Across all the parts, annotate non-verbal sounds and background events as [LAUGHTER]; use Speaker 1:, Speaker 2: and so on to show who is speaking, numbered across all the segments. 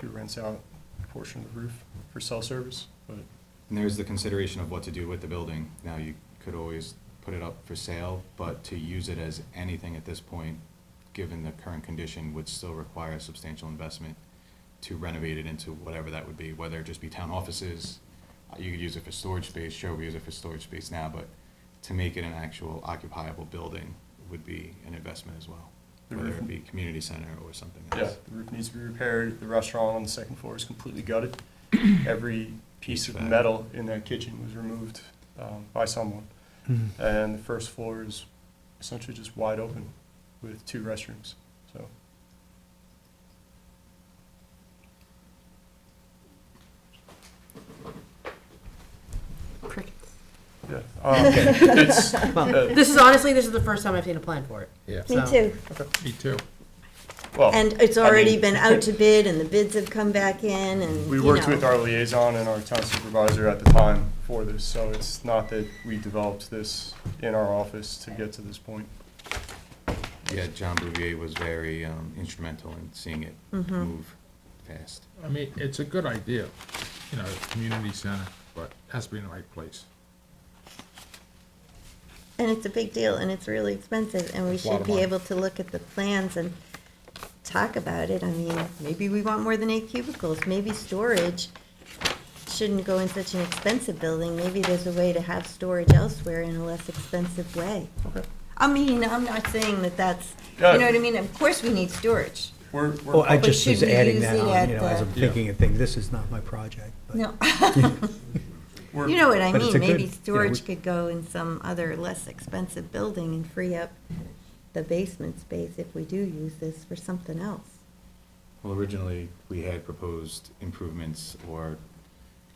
Speaker 1: to rinse out a portion of the roof for cell service, but
Speaker 2: And there's the consideration of what to do with the building. Now, you could always put it up for sale, but to use it as anything at this point, given the current condition, would still require substantial investment to renovate it into whatever that would be, whether it just be town offices. uh, You could use it for storage space, sure, we use it for storage space now, but to make it an actual occupiable building would be an investment as well.
Speaker 1: The
Speaker 2: Whether
Speaker 1: roof-
Speaker 2: it be community center or something
Speaker 1: yeah,
Speaker 2: else.
Speaker 1: the roof needs to be repaired, the restaurant on the second floor is completely [CLEARS THROAT] gutted. Every piece of
Speaker 2: HVAC.
Speaker 1: metal in that kitchen was removed um, by someone. And the first floor is essentially just wide open with two restrooms, so.
Speaker 3: Crickets.
Speaker 1: Yeah. Um, it's-
Speaker 3: Well,
Speaker 1: uh,
Speaker 3: this is honestly, this is the first time I've seen a plan for it.
Speaker 4: Yeah.
Speaker 5: Me
Speaker 3: So-
Speaker 5: too.
Speaker 4: Me too.
Speaker 1: well,
Speaker 5: And it's
Speaker 1: I
Speaker 5: already
Speaker 1: mean-
Speaker 4: [LAUGHS]
Speaker 5: been out to bid and the bids have come back in and,
Speaker 1: We
Speaker 5: you
Speaker 1: worked
Speaker 5: know.
Speaker 1: with our liaison and our town supervisor at the time for this, so it's not that we developed this in our office to get to this point.
Speaker 2: Yeah, John Bouvier was very um, instrumental in seeing it move fast.
Speaker 4: I mean, it's a good idea, you know, community center, but it has to be in the right place.
Speaker 5: And it's a big deal and it's really expensive and we
Speaker 4: It's a lot
Speaker 5: should
Speaker 4: of
Speaker 5: be
Speaker 4: money.
Speaker 5: able to look at the plans and talk about it. I mean, maybe we want more than eight cubicles, maybe storage shouldn't go in such an expensive building. Maybe there's a way to have storage elsewhere in a less expensive way.
Speaker 1: Okay.
Speaker 5: I mean, I'm not saying that that's, you
Speaker 1: Yeah.
Speaker 5: know what I mean? Of course we need storage.
Speaker 1: We're,
Speaker 6: Well, Oh, I
Speaker 1: we're,
Speaker 5: But
Speaker 6: just was
Speaker 5: should we
Speaker 6: adding
Speaker 5: use
Speaker 6: that
Speaker 5: it
Speaker 6: on,
Speaker 5: at
Speaker 6: you know, as
Speaker 5: the-
Speaker 6: I'm thinking of things, this is not my project. but-
Speaker 5: No.
Speaker 4: [LAUGHS]
Speaker 5: [LAUGHS]
Speaker 1: we're-
Speaker 5: You know what I
Speaker 6: But it's
Speaker 5: mean,
Speaker 6: a good-
Speaker 5: maybe
Speaker 6: yeah,
Speaker 5: storage
Speaker 6: we-
Speaker 5: could go in some other less expensive building and free up the basement space if we do use this for something else.
Speaker 2: Well, originally, we had proposed improvements or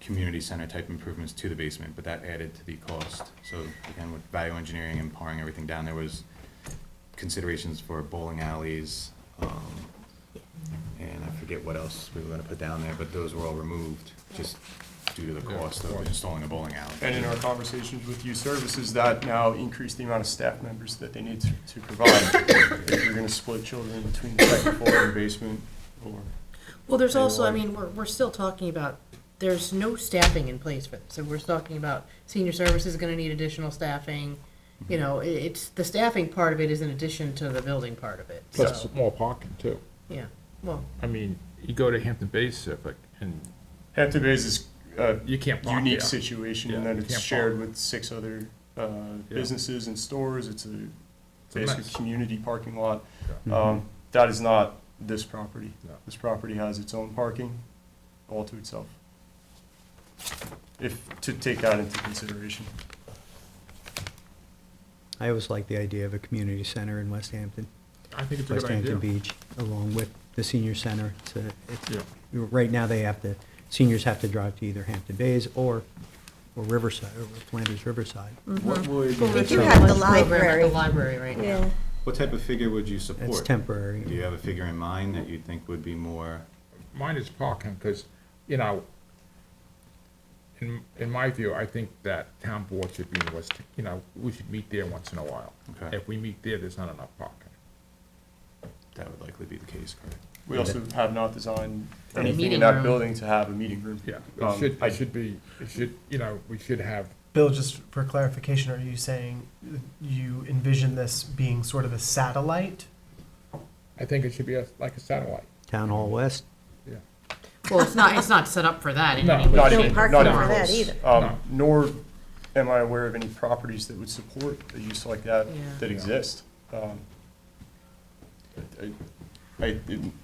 Speaker 2: community center type improvements to the basement, but that added to the cost. So again, with value engineering and paring everything down, there was considerations for bowling alleys, um, and I forget what else we were gonna put down there, but those were all removed just due to the
Speaker 4: Yeah,
Speaker 2: cost
Speaker 4: of
Speaker 2: of
Speaker 4: course.
Speaker 2: installing a bowling alley.
Speaker 1: And in our conversations with youth services, that now increased the amount of staff members that they need to, to provide. If you're gonna split children between the second floor and basement, or,
Speaker 3: Well, there's
Speaker 1: Anyway.
Speaker 3: also, I mean, we're, we're still talking about, there's no staffing in place for this. So we're talking about senior services is gonna need additional staffing. You know, i it's, the staffing part of it is in addition to the building part of it,
Speaker 4: Plus, it's
Speaker 3: so,
Speaker 4: a small parking too.
Speaker 3: yeah. Well,
Speaker 4: I mean, you go to Hampton Bay Civic and
Speaker 1: Hampton Bays is a
Speaker 4: you can't park
Speaker 1: uh, unique
Speaker 4: there.
Speaker 1: situation in
Speaker 4: Oh, Yeah,
Speaker 1: that
Speaker 4: you
Speaker 1: it's
Speaker 4: can't
Speaker 1: shared
Speaker 4: park.
Speaker 1: with six other, uh, businesses and stores. It's a
Speaker 4: It's a
Speaker 1: basically
Speaker 4: mess.
Speaker 1: community parking lot. Um, That is not this property.
Speaker 4: No.
Speaker 1: This property has its own parking all to itself. If, to take that into consideration.
Speaker 6: I always like the idea of a community center in West Hampton,
Speaker 4: I think it's a
Speaker 6: West
Speaker 4: good
Speaker 6: Hampton
Speaker 4: idea.
Speaker 6: Beach, along with the senior center. It's a, it's,
Speaker 4: Yeah,
Speaker 6: right now they have to, seniors have to drive to either Hampton Bays or, or Riverside, or Flanders Riverside.
Speaker 5: Mm.
Speaker 1: What would,
Speaker 5: We do
Speaker 3: So
Speaker 5: have the
Speaker 3: lunch program at
Speaker 5: library.
Speaker 3: The library right now.
Speaker 5: Yeah,
Speaker 2: What type of figure would you support?
Speaker 6: That's temporary.
Speaker 2: Do you have a figure in mind that you think would be more
Speaker 4: mine is parking, cause, you know, in, in my view, I think that town board should be in West, you know, we should meet there once in a while.
Speaker 2: Okay.
Speaker 4: If we meet there, there's not enough parking.
Speaker 2: That would likely be the case, correct?
Speaker 1: we also have not designed
Speaker 4: A
Speaker 1: anything in
Speaker 3: meeting
Speaker 1: that
Speaker 3: room.
Speaker 1: building to have a meeting room.
Speaker 4: Yeah,
Speaker 1: Um,
Speaker 4: it should,
Speaker 1: I-
Speaker 4: it should be, it should, you know, we should have
Speaker 7: Bill, just for clarification, are you saying you envision this being sort of a satellite?
Speaker 4: I think it should be a- like a satellite,
Speaker 6: Town Hall West,
Speaker 4: yeah.
Speaker 3: Well, it's not, it's not set up for that in
Speaker 4: No.
Speaker 3: any way.
Speaker 1: Not
Speaker 5: No
Speaker 1: even, not
Speaker 5: parking
Speaker 1: even
Speaker 5: for that
Speaker 1: close.
Speaker 5: either.
Speaker 1: Um, nor am I aware of any properties that would support a use like that,
Speaker 3: Yeah.
Speaker 1: that exist. Um, I, I- I-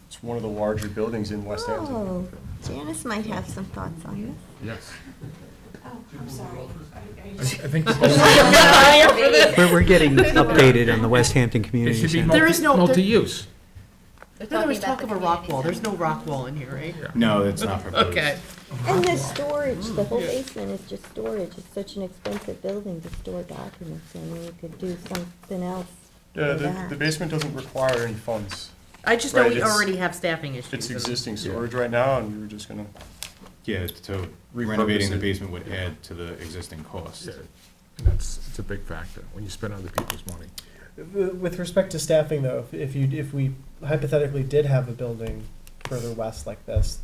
Speaker 1: it's one of the larger buildings in West Hampton.
Speaker 5: oh, Janice might have some thoughts on this.
Speaker 4: Yes. Oh, I'm sorry. I think this is-
Speaker 6: we're,
Speaker 5: [LAUGHS]
Speaker 6: we're getting updated on the West Hampton
Speaker 4: it
Speaker 6: Community
Speaker 4: should be
Speaker 6: Center.
Speaker 3: There is
Speaker 4: multi-
Speaker 3: no- there-
Speaker 4: multi-use.
Speaker 3: No, there was talk of a rock wall. There's no rock wall in here, right?
Speaker 2: No, it's not proposed.
Speaker 3: Okay.
Speaker 5: And the storage, the whole
Speaker 6: Mm.
Speaker 5: basement is just storage, it's such an expensive building to store documents, I mean, you could do something else.
Speaker 1: Yeah,
Speaker 5: for
Speaker 1: the,
Speaker 5: that.
Speaker 1: the basement doesn't require any funds.
Speaker 3: I just know
Speaker 1: Right,
Speaker 3: we
Speaker 1: it's-
Speaker 3: already have staffing issues.
Speaker 1: It's
Speaker 3: and-
Speaker 1: existing storage right now, and we were just gonna,
Speaker 2: Yeah, so renovating the
Speaker 1: Repurpose it.
Speaker 2: basement would add to the existing cost.
Speaker 4: Yeah, And that's, it's a big factor when you spend other people's money.
Speaker 7: With respect to staffing, though, if- if you, if we hypothetically did have a building further west like this,